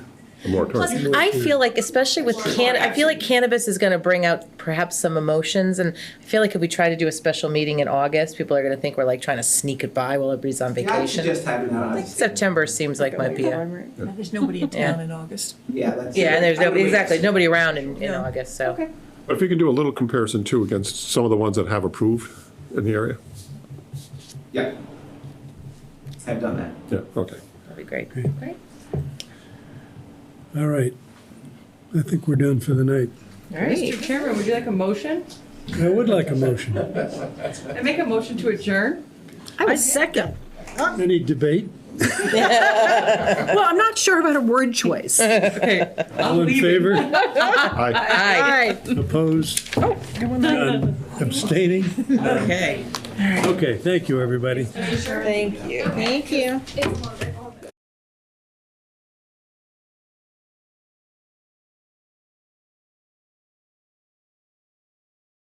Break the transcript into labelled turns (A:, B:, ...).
A: Plus,
B: moratorium.
A: I feel like, especially with can, I feel like cannabis is going to bring out perhaps some emotions, and I feel like if we try to do a special meeting in August, people are going to think we're like trying to sneak it by while everybody's on
C: Yeah, I
A: vacation.
C: suggest having that
A: I
C: on.
A: think September seems like might be a,
D: There's nobody in town in August.
C: Yeah, that's.
A: yeah, and there's
C: I would
A: nobody,
C: wait.
A: exactly, nobody around in, in
D: Yeah.
A: August, so.
C: Okay.
B: But if you can do a little comparison too against some of the ones that have approved in the area.
C: Yeah. I've done that.
B: Yeah, okay.
A: That'd be great.
E: Great. All right. I think we're done for the night.
F: Mr. Chairman, would you like a motion?
E: I would like a motion.
F: I make a motion to adjourn?
D: I was second.
E: Any debate?
D: Well, I'm not sure about a word choice. All
F: Okay. I'll
E: All in
F: leave it.
E: favor?
B: Aye.
A: Aye,
D: right.
E: Opposed? None. Abstaining?
A: okay.
E: Okay, thank you, everybody.
G: Thank you. It's more of a